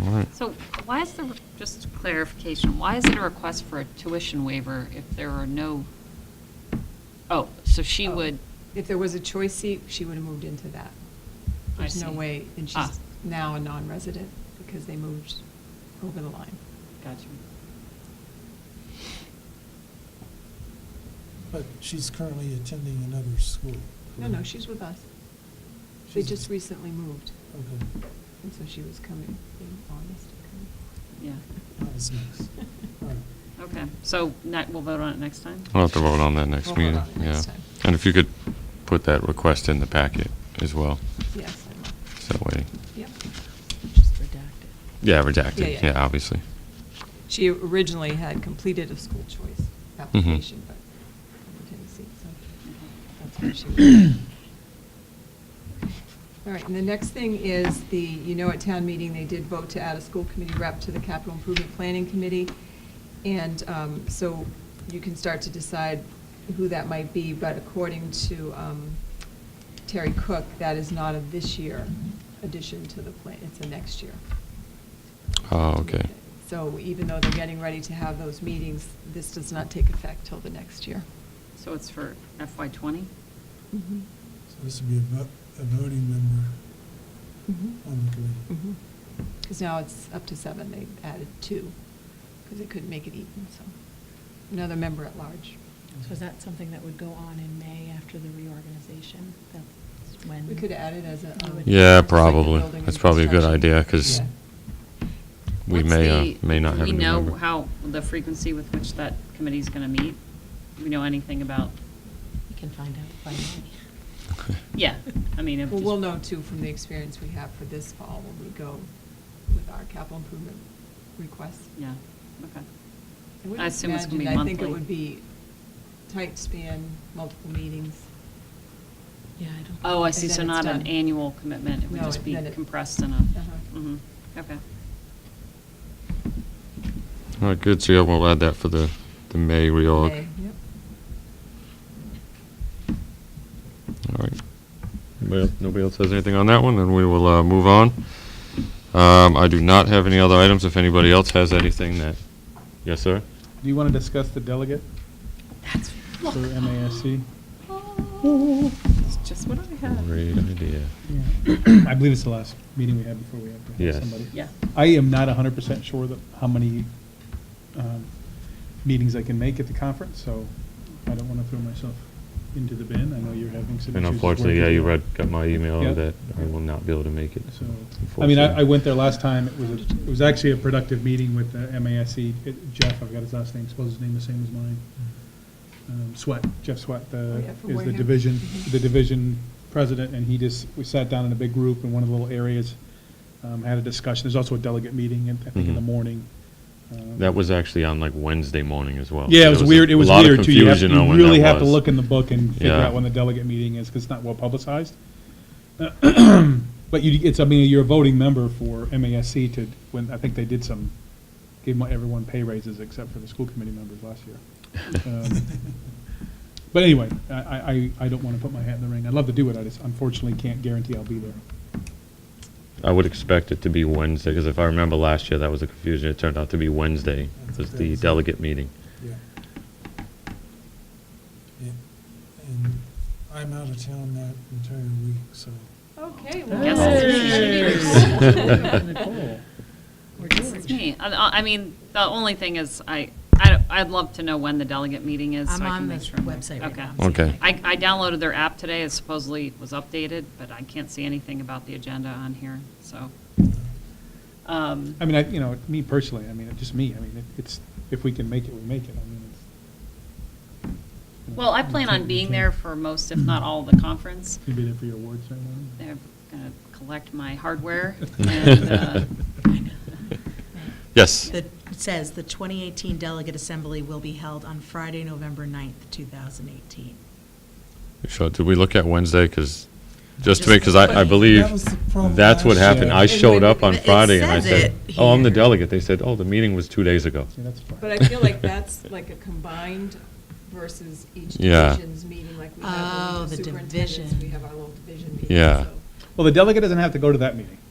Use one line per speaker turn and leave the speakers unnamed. All right.
So why is there, just clarification, why is it a request for a tuition waiver if there are no, oh, so she
Oh.
would,
If there was a choice seat, she would have moved into that.
I
There's no
see.
way, and
Ah.
she's now a non-resident because they moved over the line.
gotcha.
But she's currently attending another school.
No, no, she's with us. They
Mm. She's-
just recently moved,
Okay,
and so she was coming in August.
Yeah,
that was Oh, nice. All right.
okay. So not, we'll vote on it next time?
We'll have to vote on that next
We'll vote on
meeting,
it
yeah.
next time.
And if you could put that request in the packet as well,
Yes, I will.
so that way,
Yep.
Just redacted.
yeah,
Yeah,
redacted,
yeah.
yeah, obviously.
She originally had completed a school choice application, but in Tennessee, so that's where she was. All right, and the next thing is the, you know, at town meeting, they did vote to add a school committee rep to the capital improvement planning committee. And um, so you can start to decide who that might be, but according to um, Terry Cook, that is not a this year addition to the plan, it's a next year.
Oh, okay.
So even though they're getting ready to have those meetings, this does not take effect till the next year.
So it's for FY '20?
Mhm.
So this would be a vo- a voting member on the committee.
Mhm. Because now it's up to seven, they added two, because they couldn't make it even, so. Another member at large.
So is that something that would go on in May after the reorganization? That's when?
We could add it as a. um,
Yeah,
like the
probably.
building and
That's probably a good
construction.
idea, 'cause-
Yeah.
We
What's
may, uh,
the-
may not have a new
Do we
member.
know how, the frequency with which that committee's going to meet? Do we know anything about,
We can find out by May.
yeah, I mean, if.
Well, we'll know too from the experience we have for this fall when we go with our capital improvement requests.
Yeah, okay.
would
I assume it's gonna be
imagine- I think it
monthly.
would be tight span, multiple meetings.
Yeah, I don't.
Oh, I
And
see, so
then it's
not an
done.
annual commitment, it would
No,
just be
then it-
compressed in a,
Uh-huh.
mhm, okay.
All right, good, so yeah, we'll add that for the, the May reorg.
May, Yep.
All right. Anybody else- Nobody else has anything on that one, then we will uh, move on. Um, I do not have any other items. If anybody else has anything that, yes, sir?
Do you want to discuss the delegate
That's,
for MASC?
oh, that's just what I had.
Great idea.
I believe it's the last meeting we had before we have to
Yes.
have somebody.
Yeah,
I am not hundred percent sure that, how many, um, meetings I can make at the conference, so I don't want to throw myself into the bin. I know you're having some issues.
And
with
unfortunately,
work.
yeah, you read, got my
Yeah.
email that I will not be able to make it.
So, I mean, I, I
unfortunately.
went there last time, it was, a- it was actually a productive meeting with the MASC, It- Jeff, I've got his last name, suppose his name is the same as mine. Um, Sweat, Jeff Sweat,
Oh,
the,
yeah, from
is the
Wareham.
division,
Mhm.
the division president, and he just, we sat down in a big group in one of the little areas, um, had a discussion, there's also a delegate meeting, in- I think in the
Mhm.
morning. Um,
That was actually on like Wednesday morning as well.
Yeah, it
There
was
Oh, a
weird, it was
lot of
weird too, you have,
confusion on
you
when
really
that
have to
was.
look in the book and figure
Yeah.
out when the delegate meeting is, because it's not well publicized. But you, it's, I mean, you're a voting member for MASC to, when, I think they did some, gave my- everyone pay raises except for the school committee members last year. Um, But anyway, I, I, I- I don't want to put my hat in the ring. I'd love to do it, I just unfortunately can't guarantee I'll be there.
I would expect it to be Wednesday, because if I remember last year, that was the confusion. It turned out to be Wednesday,
That's
was the
crazy.
delegate meeting.
Yeah. Yeah. And I'm out of town that entire week, so.
Okay.
Yes,
it's me.
Nicole.
Or
this is
George.
me. I- I, I mean, the only thing is, I, I, I'd love to know when the delegate meeting is, so
I'm
I can
on the
make sure. I'm there.
website right
Okay.
now.
Okay.
I, I downloaded their app today, it supposedly was updated, but I can't see anything about the agenda on here, so. um,
I mean, I, you know, me personally, I mean, just me, I mean, it- it's, if we can make it, we make it, I mean, it's. you know,
Well, I
you
plan
can't-
on
you
being
can't-
there for most, if not all, of the conference.
You'll be there for your awards ceremony?
They're going to collect my hardware and, uh,
Yes.
The- It says, "The 2018 Delegate Assembly will be held on Friday, November 9th, 2018."
So did we look at Wednesday? Because, just to
Just
make, because I, I
funny.
believe
That was the problem
that's what
last
happened.
year.
I
And
showed
when-
up on
it
Friday and I
says
said,
it
oh, I'm the
here.
delegate. They said, oh, the meeting was two days ago.
See, that's fine.
But I feel like that's like a combined versus each
Yeah.
division's meeting, like we have
Oh,
the
the
superintendents, we
division.
have our little division meeting.
Yeah.
so-
Well, the delegate doesn't have to go to that meeting.